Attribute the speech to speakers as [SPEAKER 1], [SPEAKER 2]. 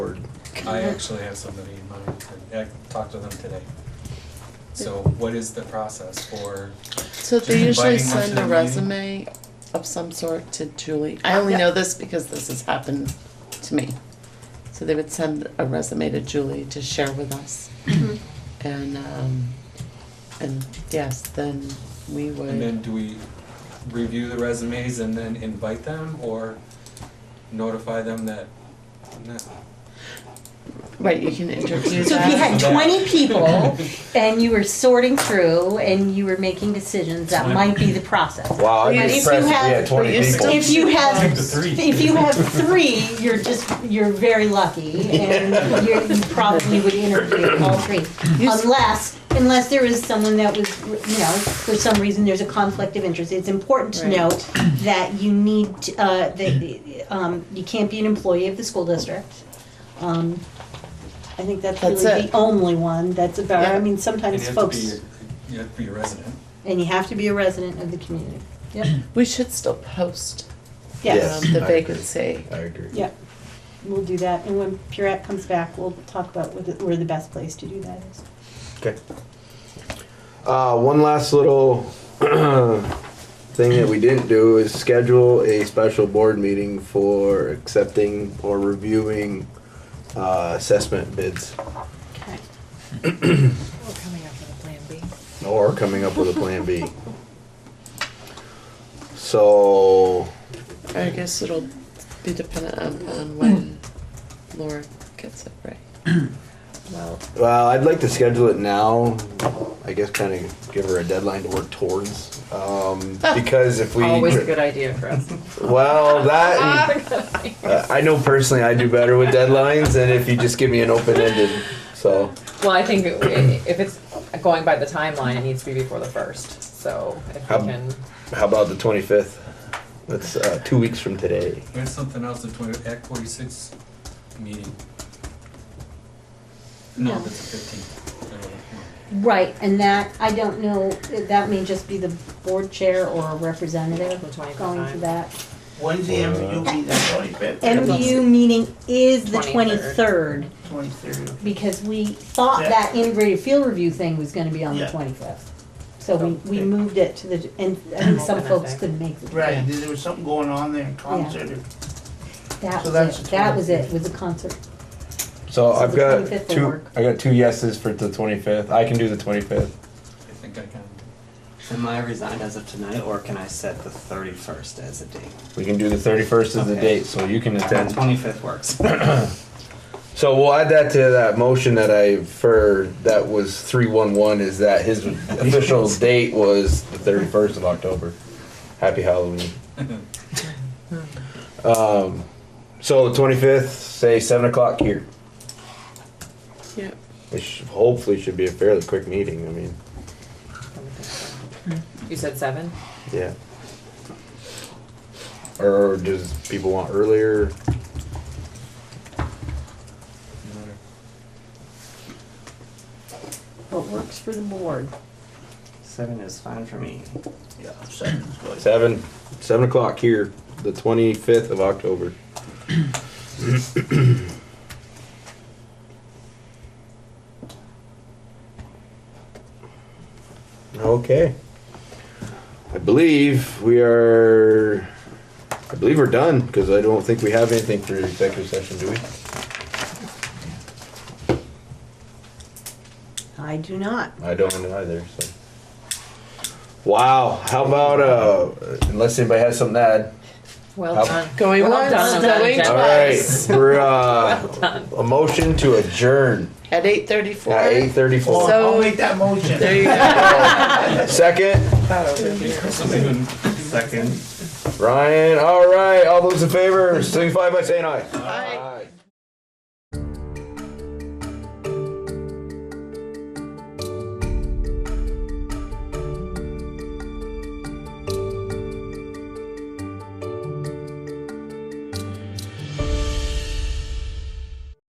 [SPEAKER 1] I actually have somebody in mind, I talked to them today. So what is the process for,
[SPEAKER 2] So they
[SPEAKER 1] Just
[SPEAKER 2] usually
[SPEAKER 1] inviting them to
[SPEAKER 2] send a
[SPEAKER 1] the meeting?
[SPEAKER 2] resume of some sort to Julie. I only
[SPEAKER 3] Yeah.
[SPEAKER 2] know this because this has happened to me. So they would send a resume to Julie to share with us.
[SPEAKER 3] Mm-hmm.
[SPEAKER 2] And, um, and yes, then we
[SPEAKER 1] and
[SPEAKER 2] would,
[SPEAKER 1] then do we review the resumes and then invite them or notify them that, no?
[SPEAKER 2] right, you can interview
[SPEAKER 3] So if you
[SPEAKER 2] that.
[SPEAKER 3] had
[SPEAKER 1] Yeah.
[SPEAKER 3] twenty people and you were sorting through and you were making decisions, that might be the process.
[SPEAKER 4] Wow, I'm
[SPEAKER 3] But if you
[SPEAKER 4] impressed if we
[SPEAKER 3] have-
[SPEAKER 4] had 20
[SPEAKER 2] but you
[SPEAKER 4] people.
[SPEAKER 2] still-
[SPEAKER 3] If you have,
[SPEAKER 1] Keep the three.
[SPEAKER 3] if you have three, you're just, you're very lucky and you're, you probably would interview all three.
[SPEAKER 2] You s-
[SPEAKER 3] Unless, unless there is someone that was, you know, for some reason there's a conflict of interest. It's important to
[SPEAKER 2] Right.
[SPEAKER 3] note that you need, uh, that, um, you can't be an employee of the school district. Um, I think that's really
[SPEAKER 2] That's
[SPEAKER 3] the
[SPEAKER 2] it.
[SPEAKER 3] only one that's about, I
[SPEAKER 2] Yeah.
[SPEAKER 3] mean,
[SPEAKER 1] And
[SPEAKER 3] sometimes
[SPEAKER 1] you have to be,
[SPEAKER 3] folks,
[SPEAKER 1] you have to be a resident.
[SPEAKER 3] and you have to be a resident of the community. Yep,
[SPEAKER 2] We should still post, um,
[SPEAKER 3] yes,
[SPEAKER 4] Yes,
[SPEAKER 2] the
[SPEAKER 4] I agree.
[SPEAKER 2] vacancy.
[SPEAKER 4] I agree.
[SPEAKER 3] yep. We'll do that, and when Purette comes back, we'll talk about where the, where the best place to do that is.
[SPEAKER 4] Okay. Uh, one last little thing that we didn't do is schedule a special board meeting for accepting or reviewing uh, assessment bids
[SPEAKER 3] Okay.
[SPEAKER 5] We're coming up with a plan B.
[SPEAKER 4] or coming up with a plan B. So,
[SPEAKER 2] I guess it'll be dependent on, on when Laura gets it right.
[SPEAKER 5] Well,
[SPEAKER 4] well, I'd like to schedule it now. I guess kind of give her a deadline to work towards. Um, because if we.
[SPEAKER 5] always a good Ah, idea for us.
[SPEAKER 4] Well, that.
[SPEAKER 5] Good
[SPEAKER 4] Uh, I know personally I do better with deadlines than if you just give me an open ended. So,
[SPEAKER 5] Well, I think it- if it's going by the timeline, it needs to be before the first, so if we
[SPEAKER 4] Um,
[SPEAKER 5] can,
[SPEAKER 4] how about the 25th? That's uh, two weeks from today.
[SPEAKER 1] There's something else, the twenty, Act forty-six meeting. No,
[SPEAKER 3] No.
[SPEAKER 1] that's the fifteenth.
[SPEAKER 3] Right, and that, I don't know, that may just be the board chair or a representative
[SPEAKER 5] The 25th
[SPEAKER 3] going to
[SPEAKER 5] time.
[SPEAKER 3] that.
[SPEAKER 6] When's the MVU meeting, twenty-fifth?
[SPEAKER 2] Eh.
[SPEAKER 3] MVU meeting is the
[SPEAKER 5] 23rd.
[SPEAKER 3] twenty-third.
[SPEAKER 6] Twenty-third.
[SPEAKER 3] because we thought
[SPEAKER 6] Yeah.
[SPEAKER 3] that integrated field review thing was gonna be on the
[SPEAKER 6] Yeah. Oh,
[SPEAKER 3] twenty-fifth. So we, we
[SPEAKER 6] Okay.
[SPEAKER 3] moved it to the, and I think some
[SPEAKER 5] Open that
[SPEAKER 3] folks
[SPEAKER 5] day.
[SPEAKER 3] couldn't make the.
[SPEAKER 6] Right, there was something going on there, concert, or-
[SPEAKER 3] That
[SPEAKER 6] So
[SPEAKER 3] was
[SPEAKER 6] that's
[SPEAKER 3] it,
[SPEAKER 6] the
[SPEAKER 3] that was it, was a concert.
[SPEAKER 4] So,
[SPEAKER 3] So
[SPEAKER 4] I've
[SPEAKER 3] the
[SPEAKER 4] got
[SPEAKER 3] 25th will
[SPEAKER 4] two.
[SPEAKER 3] work.
[SPEAKER 4] I got two yeses for the 25th. I can do the 25th.
[SPEAKER 1] I think I can.
[SPEAKER 7] Am I resigned as of tonight, or can I set the thirty-first as a date?
[SPEAKER 4] We can do the 31st as the
[SPEAKER 7] Okay.
[SPEAKER 4] date, so you can attend.
[SPEAKER 7] Twenty-fifth works.
[SPEAKER 4] So we'll add that to that motion that I for that was 311 is that his official date was the 31st of October. Happy Halloween. Um, so the 25th, say 7 o'clock here,
[SPEAKER 2] Yep.
[SPEAKER 4] which hopefully should be a fairly quick meeting. I mean,
[SPEAKER 5] you said seven?
[SPEAKER 4] yeah. Or does people want earlier?
[SPEAKER 3] What works for the board?
[SPEAKER 7] Seven is fine for me.
[SPEAKER 6] yeah, seven's good.
[SPEAKER 4] 7, 7 o'clock here, the 25th of October. Okay. I believe we are, I believe we're done, because I don't think we have anything for executive session, do we?
[SPEAKER 3] I do not.
[SPEAKER 4] I don't either, so. Wow, how about, uh, unless anybody has something to add?
[SPEAKER 5] Well
[SPEAKER 4] Up.
[SPEAKER 5] done.
[SPEAKER 2] Going
[SPEAKER 5] Well
[SPEAKER 2] once,
[SPEAKER 5] done, well
[SPEAKER 2] going
[SPEAKER 5] done,
[SPEAKER 4] All
[SPEAKER 5] Jen.
[SPEAKER 4] right,
[SPEAKER 2] twice.
[SPEAKER 4] we're, uh, a motion to adjourn
[SPEAKER 2] At eight thirty-four.
[SPEAKER 4] at eight
[SPEAKER 6] I'll-
[SPEAKER 4] thirty-four.
[SPEAKER 2] So-
[SPEAKER 6] I'll make that motion.
[SPEAKER 2] There you go.
[SPEAKER 4] Second,
[SPEAKER 1] Something-
[SPEAKER 7] Second.
[SPEAKER 4] Ryan, all right, all those in favor, signify by saying aye.
[SPEAKER 2] Bye.